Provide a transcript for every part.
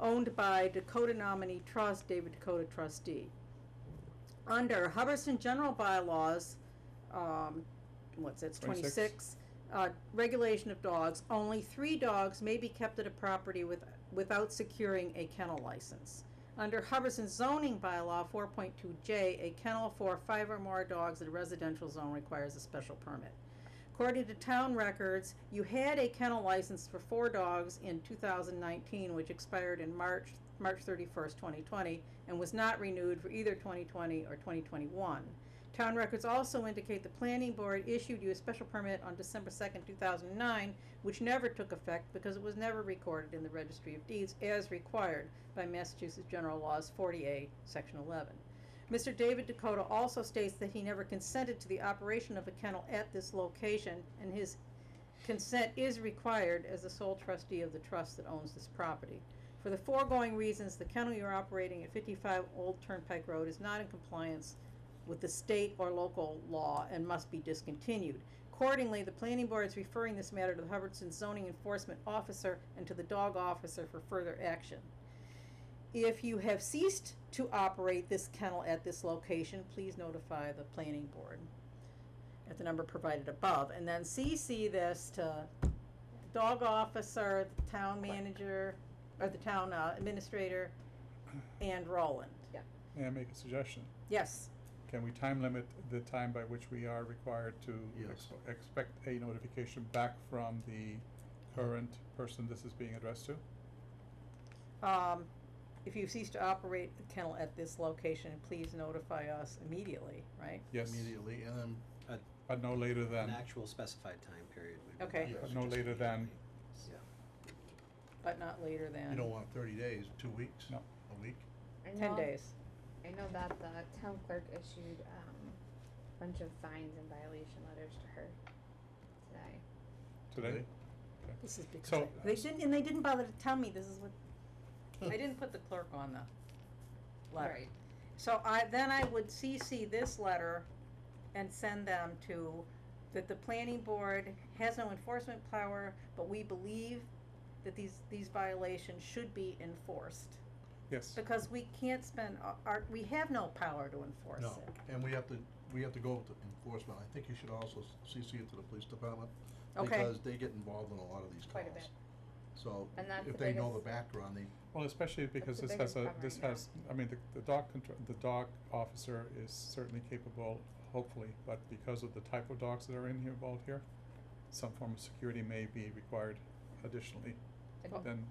owned by Dakota nominee trust, David Dakota trustee. Under Hubbardson general bylaws, um, what's that, Twenty-six. twenty-six? Uh, regulation of dogs, only three dogs may be kept at a property with, without securing a kennel license. Under Hubbardson zoning bylaw four point two J, a kennel for five or more dogs in a residential zone requires a special permit. According to town records, you had a kennel license for four dogs in two thousand nineteen, which expired in March, March thirty-first, twenty twenty, and was not renewed for either twenty twenty or twenty twenty-one. Town records also indicate the planning board issued you a special permit on December second, two thousand and nine, which never took effect because it was never recorded in the registry of deeds as required by Massachusetts General Laws forty A, section eleven. Mr. David Dakota also states that he never consented to the operation of a kennel at this location, and his consent is required as the sole trustee of the trust that owns this property. For the foregoing reasons, the kennel you're operating at fifty-five Old Turnpike Road is not in compliance with the state or local law and must be discontinued. Accordingly, the planning board is referring this matter to the Hubbardson zoning enforcement officer and to the dog officer for further action. If you have ceased to operate this kennel at this location, please notify the planning board at the number provided above, and then CC this to dog officer, the town manager, or the town uh, administrator, and Roland. May I make a suggestion? Yes, Can we time limit the time by which we are required to Yes. exp- expect a notification back from the current person this is being addressed to? um, if you cease to operate the kennel at this location, please notify us immediately, right? Yes, Immediately, and then but no later An than, actual specified time period would be. Okay. nice. But no later than- Yeah. But not later than you don't want thirty days, two weeks, No. a week. I ten know- days. I know that the town clerk issued, um, a bunch of fines and violation letters to her today. today? This is because So- I- they didn't, and they didn't bother to tell me this is what, I didn't put the clerk on the letter. Right. So I, then I would CC this letter and send them to, that the planning board has no enforcement power, but we believe that these, these violations should be enforced. Yes, Because we can't spend, our- our, we have no power to enforce No, it. and we have to, we have to go with the enforcement, I think you should also s- CC it to the police department. Okay. Because they get involved in a lot of these Quite a calls. So, And that's if the they know the biggest- background, they, well, especially because the this has biggest a, problem this right now. has, I mean, the, the dog control, the dog officer is certainly capable, hopefully, but because of the type of dogs that are in here, involved here, some form of security may be required additionally, then,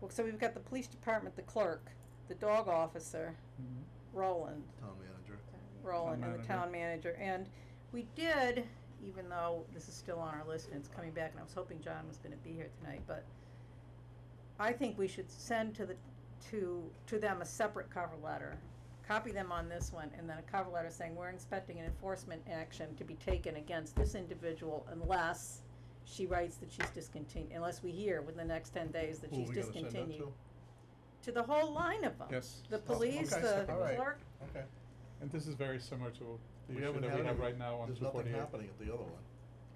Well, so we've got the police department, the clerk, the dog officer, mhm. Roland, town manager. Roland Town and the manager. town manager, and we did, even though this is still on our list and it's coming back, and I was hoping John was gonna be here tonight, but I think we should send to the, to, to them a separate cover letter, copy them on this one, and then a cover letter saying, we're inspecting an enforcement action to be taken against this individual unless she writes that she's discontinued, unless we hear within the next ten days that Who are she's we gonna send that Oh, discontinued. to? the whole line of them. yes. The police, okay, the all right. clerk, to? Okay. And this is very similar to the We issue haven't that we had have any- right now on There's two nothing forty-eight. happening at the other one.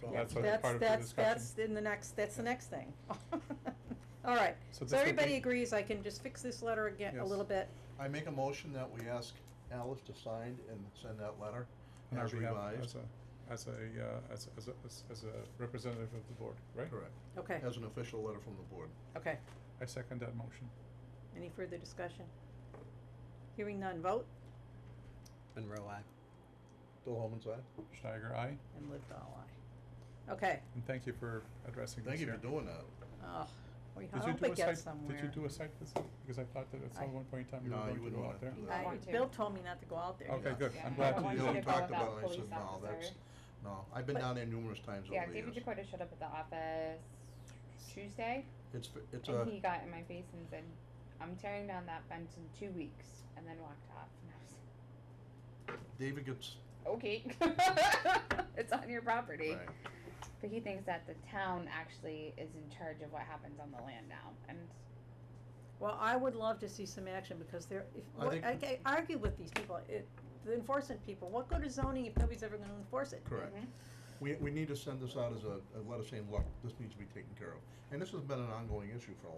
So- Yeah. That's what- part of the that's, that's, discussion. that's in the next, that's the next thing. All right, So this so would everybody be- agrees I can just fix this letter again a Yes. little bit, I make a motion that we ask Alice to sign and send that letter on our as behalf revised. As a, as a, uh, as, as, a- as- as a representative of the board, right? Correct, okay, as an official letter from the board. okay, I second that motion. any further discussion? Hearing none, vote, Monroe, I. Bill Holman's aye? Steiger, aye, and live all eye. Okay, and thank you for addressing this Thank you here. for doing that. oh, we Did you hope do a it gets site- somewhere. Did you do a site visit? Because I thought that at I- some one point in time you No, were you going to wouldn't go wanna out there. do I, that. want to. Bill told me not to go out there. Okay, Yeah. good. Yeah, I'm I glad don't to want do you that. to We go talked without about it, I police said, no, that's, officer." no, I've been But- down there numerous times Yeah, over the David years. Dakota showed up at the office Tuesday, It's, f- it's and a, he got in my face and said, "I'm tearing down that fence in two weeks," and then walked off. And I was David gets, like, "Okay, it's on your property." right, But he thinks that the town actually is in charge of what happens on the land now, and Well, I would love to see some action because they're, if, I what, think- I, I argue with these people, it, the enforcement people, what good is zoning if nobody's ever gonna enforce it? correct. We, we need to send this out as a, a letter saying, look, this needs to be taken care of. And this has been an ongoing issue for a